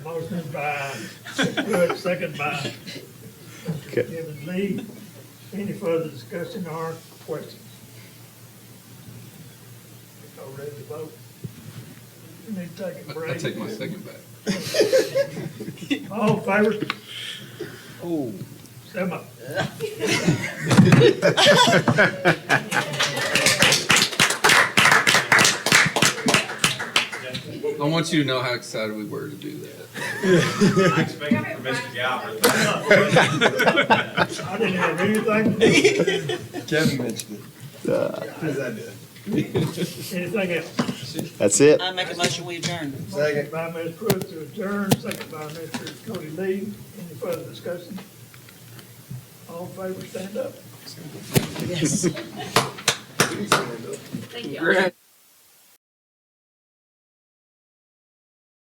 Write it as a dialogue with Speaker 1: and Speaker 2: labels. Speaker 1: Motion by Pruitt, second by
Speaker 2: Okay.
Speaker 1: Mr. Kevin Lee. Any further discussion or questions? Y'all ready to vote? You need to take a
Speaker 3: I I
Speaker 1: break.
Speaker 3: take my second back.
Speaker 1: All in favor?
Speaker 2: Oh.
Speaker 1: Say my.
Speaker 3: I want you to know how excited we were to do that.
Speaker 4: I expected from Mr. Galbraith.
Speaker 1: I didn't have anything, to do.
Speaker 5: Kevin mentioned it.
Speaker 1: anything else.
Speaker 2: That's it.
Speaker 6: I make a motion, we adjourn.
Speaker 1: Motion by Ms. Pruitt to adjourn, second by Mr. Cody Lee. Any further discussion? All in favor, stand up.
Speaker 6: Yes.
Speaker 7: Thank you.